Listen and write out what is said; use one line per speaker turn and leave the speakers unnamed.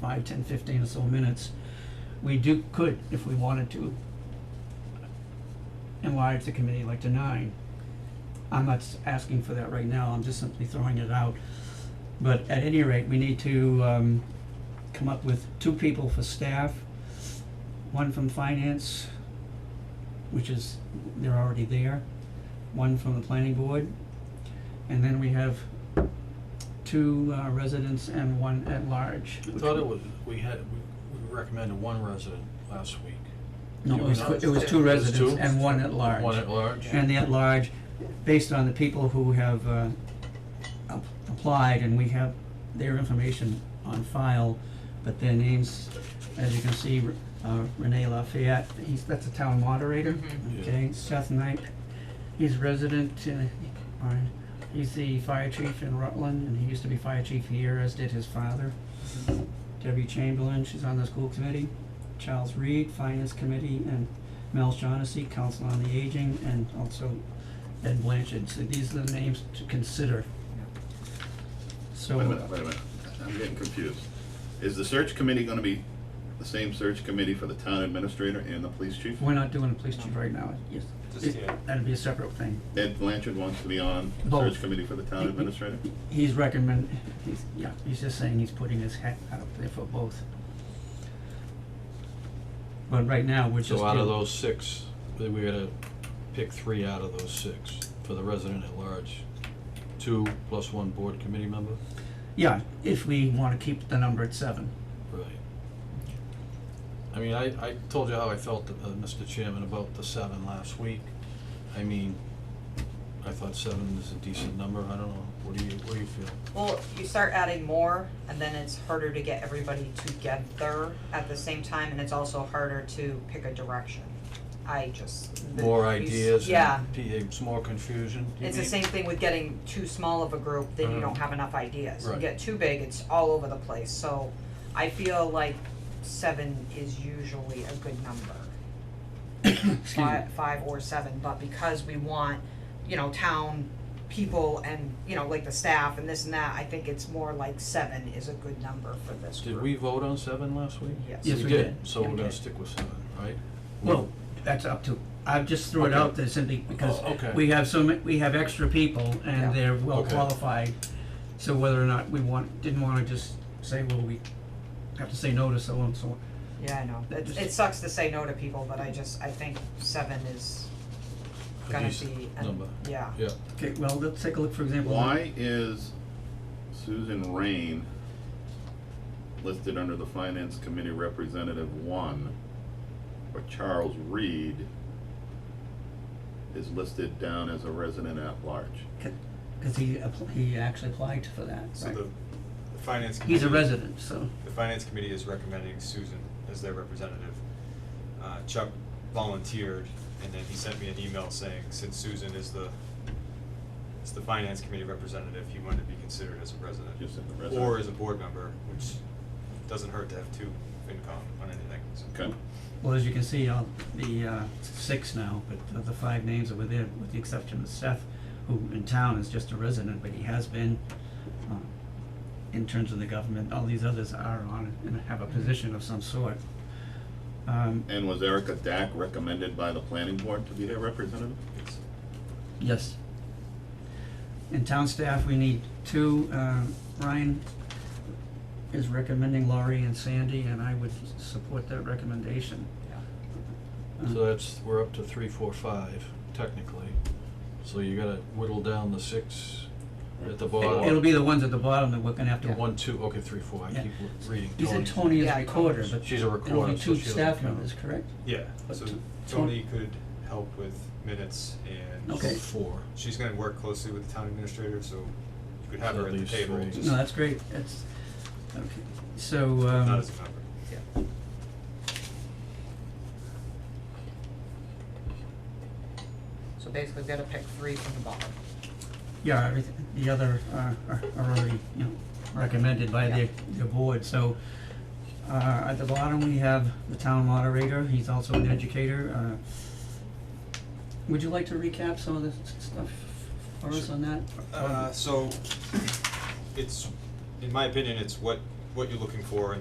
five, ten, fifteen or so minutes, we do, could, if we wanted to, enlarge the committee like to nine. I'm not s- asking for that right now, I'm just simply throwing it out. But at any rate, we need to, um, come up with two people for staff, one from finance, which is, they're already there, one from the planning board, and then we have two uh, residents and one at large.
I thought it was, we had, we- we recommended one resident last week.
No, it was,
It was
it was two
two.
residents and one at large.
One at large?
And the at-large, based on the people who have uh, ap- applied, and we have their information on file, but their names, as you can see, Re- uh, Renee Lafayette, he's, that's a town moderator,
Yeah.
okay? Seth Knight, he's resident, uh, or he's the fire chief in Rutland, and he used to be fire chief here, as did his father. Debbie Chamberlain, she's on the school committee. Charles Reed, Finance Committee, and Mel Shaughnessy, Council on the Aging, and also Ed Blanchard, so these are the names to consider. So.
Wait a minute, wait a minute, I'm getting confused. Is the search committee gonna be the same search committee for the town administrator and the police chief?
We're not doing a police chief right now, yes.
Just,
It-
yeah.
That'd be a separate thing.
Ed Blanchard wants to be on the
Both.
search committee for the town administrator?
He's recommend, he's, yeah, he's just saying he's putting his hat out there for both. But right now, we're just.
So out of
dealing-
those six, we we gotta pick three out of those six for the resident at large. Two plus one board committee member?
Yeah, if we wanna keep the number at seven.
Right. I mean, I, I told you how I felt, uh, Mr. Chairman, about the seven last week. I mean, I thought seven is a decent number, I don't know, what do you, what do you feel?
Well, you start adding more, and then it's harder to get everybody together at the same time, and it's also harder to pick a direction. I just. the-
More
you s-
ideas
Yeah,
and p- it's more confusion, do you
it's the
mean?
same thing with getting too small of a group, then you
Uh-huh.
don't have enough ideas. You
Right.
get too big, it's all over the place, so I feel like seven is usually a good number.
Excuse me.
Five, five or seven, but because we want, you know, town people and, you know, like the staff and this and that, I think it's more like seven is a good number for this group.
Did we vote on seven last week?
Yes.
Yes,
We
we
did,
did.
so
Yeah,
we're
we
gonna
did.
stick with seven, right?
Well, that's up to, I just threw it
Okay.
out there simply because
Oh, okay.
we have so ma- we have extra people
Yeah.
and they're well
Okay.
qualified. So whether or not we want, didn't wanna just say, well, we have to say no to so and so.
Yeah, I know, it, it sucks to say no to people, but I just, I think seven is
A
gonna
decent
be, an-
number.
yeah,
Yeah,
Okay, well, let's take a look, for example.
Why is Susan Rain listed under the finance committee representative one, but Charles Reed is listed down as a resident at large?
Cause he appl- he actually applied for that,
So
right?
the, the finance committee.
He's a resident, so,
The finance committee is recommending Susan as their representative. Uh, Chuck volunteered, and then he sent me an email saying, since Susan is the, is the finance committee representative, he wanted to be considered as a resident.
Just as a
Or
resident.
as a board member, which doesn't hurt to have two FinCom on anything, so.
Okay,
well, as you can see, all the uh six now, but the- the five names are within, with the exception of Seth, who in town is just a resident, but he has been uh, in terms of the government, all these others are on and have a position of some sort. Um,
and was Erica Dack recommended by the planning board to be their representative?
it's-
yes. In town staff, we need two, uh, Ryan is recommending Laurie and Sandy, and I would s- support that recommendation. Uh,
so that's, we're up to three, four, five technically. So you gotta whittle down the six at the
It'll it'll
bottom.
be the ones at the bottom that we're gonna have to.
One, two, okay, three, four, I
Yeah.
keep reading
You
Tony.
said Tony is
Yeah,
a recorder, but
She's a
it'll
recorder,
be
so
two
she doesn't
staff
count.
members, correct?
Yeah,
But
so
Ton-
Tony could help with minutes and
Okay.
Four.
she's gonna work closely with the town administrator, so you could have
So
her
at
at the
least
table,
three.
just
No, that's great, that's, okay, so,
not
um,
as a member.
so basically gotta pick three from the bottom.
yeah, everything, the other are, are are already, you know, recommended by their, their board, so. Uh, at the bottom, we have the town moderator, he's also an educator, uh. Would you like to recap some of the s- stuff for us
Sure.
on that?
Uh, so, it's, in my opinion, it's what, what you're looking for in